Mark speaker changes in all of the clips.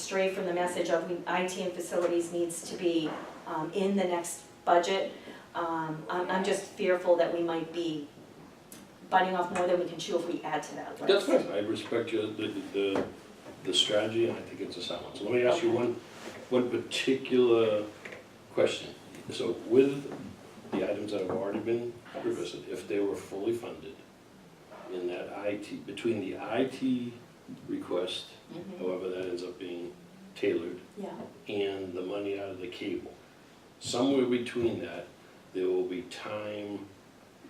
Speaker 1: stray from the message of we- IT and facilities needs to be um, in the next budget. Um, I'm, I'm just fearful that we might be biting off more than we can chew if we add to that
Speaker 2: That's
Speaker 1: list.
Speaker 2: fine, I respect your, the, the, the strategy, and I think it's a sound one. So let me ask you one, one particular question. So with the items that have already been revisited, if they were fully funded in that IT, between the IT request,
Speaker 1: Mhm.
Speaker 2: however that ends up being tailored,
Speaker 1: Yeah,
Speaker 2: and the money out of the cable. Somewhere between that, there will be time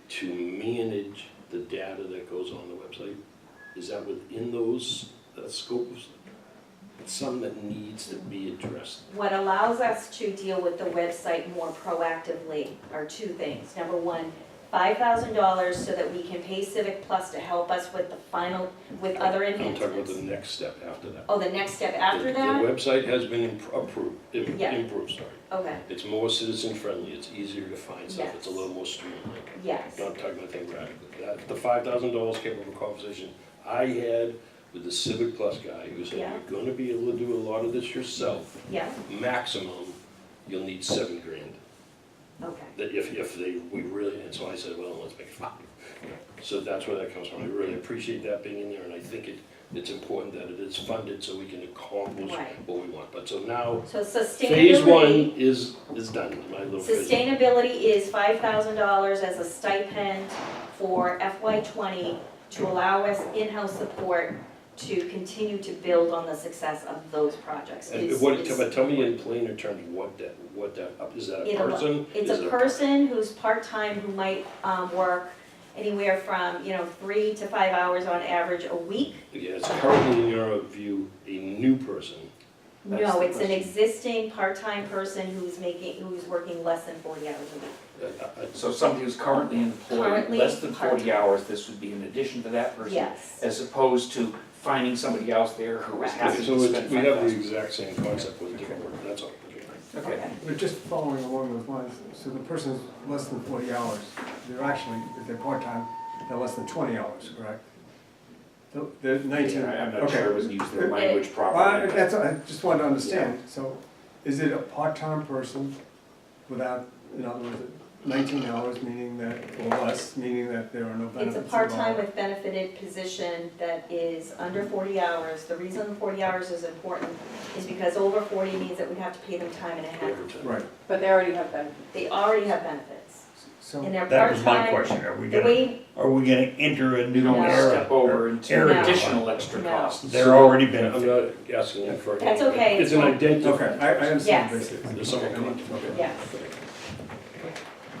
Speaker 2: to manage the data that goes on the website. Is that within those, that scope of, it's something that needs to be addressed?
Speaker 1: what allows us to deal with the website more proactively are two things. Number one, five thousand dollars so that we can pay Civic Plus to help us with the final, with other
Speaker 2: I'm talking about
Speaker 1: enhancements.
Speaker 2: the next step after that.
Speaker 1: Oh, the next step after
Speaker 2: The-
Speaker 1: that?
Speaker 2: The website has been imp- approved, im-
Speaker 1: Yeah.
Speaker 2: improved, sorry.
Speaker 1: Okay,
Speaker 2: It's more citizen friendly, it's easier to find stuff, it's a
Speaker 1: Yes.
Speaker 2: little more streamlined.
Speaker 1: yes.
Speaker 2: No, I'm talking about that we're at. That- The five thousand dollars came from a conversation I had with the Civic Plus guy who said,
Speaker 1: Yeah.
Speaker 2: you're gonna be able to do a lot of this yourself.
Speaker 1: Yeah,
Speaker 2: Maximum, you'll need seven grand.
Speaker 1: okay.
Speaker 2: That if, if they, we really, and so I said, well, let's make it five. So that's where that comes from. I really appreciate that being in there and I think it, it's important that it is funded so we can accomplish
Speaker 1: Right.
Speaker 2: what we want. But so now,
Speaker 1: So
Speaker 2: phase one
Speaker 1: sustainability,
Speaker 2: is, is done, my little phase. one.
Speaker 1: sustainability is five thousand dollars as a stipend for FY twenty to allow us in-house support to continue to build on the success of those projects.
Speaker 2: And
Speaker 1: Is-
Speaker 2: what,
Speaker 1: is-
Speaker 2: tell- but tell me in plainer terms, what that, what that, is that a
Speaker 1: It'll-
Speaker 2: person?
Speaker 1: It's
Speaker 2: Is
Speaker 1: a
Speaker 2: it
Speaker 1: person who's part-time who might um, work anywhere from, you know, three to five hours on average a week.
Speaker 2: Yeah, it's currently in your view, a new person. That's
Speaker 1: No,
Speaker 2: the
Speaker 1: it's an
Speaker 2: question.
Speaker 1: existing part-time person who's making, who's working less than forty hours a week.
Speaker 2: Uh, uh,
Speaker 3: So somebody who's currently employed,
Speaker 1: Currently
Speaker 3: less than forty
Speaker 1: part-time.
Speaker 3: hours, this would be in addition to that person?
Speaker 1: Yes,
Speaker 3: As opposed to finding somebody else there who is
Speaker 1: Correct.
Speaker 2: uh,
Speaker 3: happy
Speaker 2: So
Speaker 3: to
Speaker 2: it's-
Speaker 3: spend
Speaker 2: we have the
Speaker 3: 5,000.
Speaker 2: exact same concept with a different word, that's all. Okay.
Speaker 3: Okay,
Speaker 1: okay,
Speaker 4: But just following along those lines, so the person's less than forty hours, they're actually, if they're part-time, they're less than twenty hours, correct? The- The nineteen,
Speaker 3: Yeah, I- I'm not
Speaker 4: okay.
Speaker 3: sure it was used their
Speaker 4: Okay.
Speaker 3: language
Speaker 4: Well, I-
Speaker 3: properly.
Speaker 4: that's, I just wanted to understand, so is it a part-time person without, in other words, nineteen hours, meaning that, or less, meaning that there are no
Speaker 1: it's
Speaker 4: benefits
Speaker 1: a
Speaker 4: involved?
Speaker 1: part-time with benefited position that is under forty hours. The reason forty hours is important is because over forty means that we have to pay them time and a half.
Speaker 2: Overtime.
Speaker 4: Right,
Speaker 5: But they already have benefits.
Speaker 1: They already have benefits, and
Speaker 4: so,
Speaker 1: they're part-time.
Speaker 6: That was my question, are we
Speaker 1: The
Speaker 6: gonna,
Speaker 1: way,
Speaker 6: are we gonna enter a
Speaker 3: You
Speaker 6: new
Speaker 3: don't want to
Speaker 6: era?
Speaker 3: step over into
Speaker 6: Area.
Speaker 3: additional extra
Speaker 1: No.
Speaker 3: costs.
Speaker 6: They're already been,
Speaker 2: I'm not asking you for.
Speaker 1: That's okay.
Speaker 2: It's an identity.
Speaker 4: okay, I, I understand
Speaker 1: Yes.
Speaker 4: basically.
Speaker 2: There's someone coming. Okay.
Speaker 1: yes.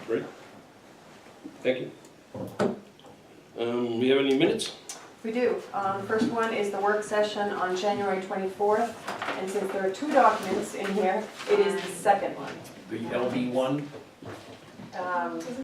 Speaker 2: Great. Thank you. Um, we have any minutes?
Speaker 5: We do. Um, First one is the work session on January 24th, and since there are two documents in here, it is the second one.
Speaker 3: The LB one
Speaker 5: Um,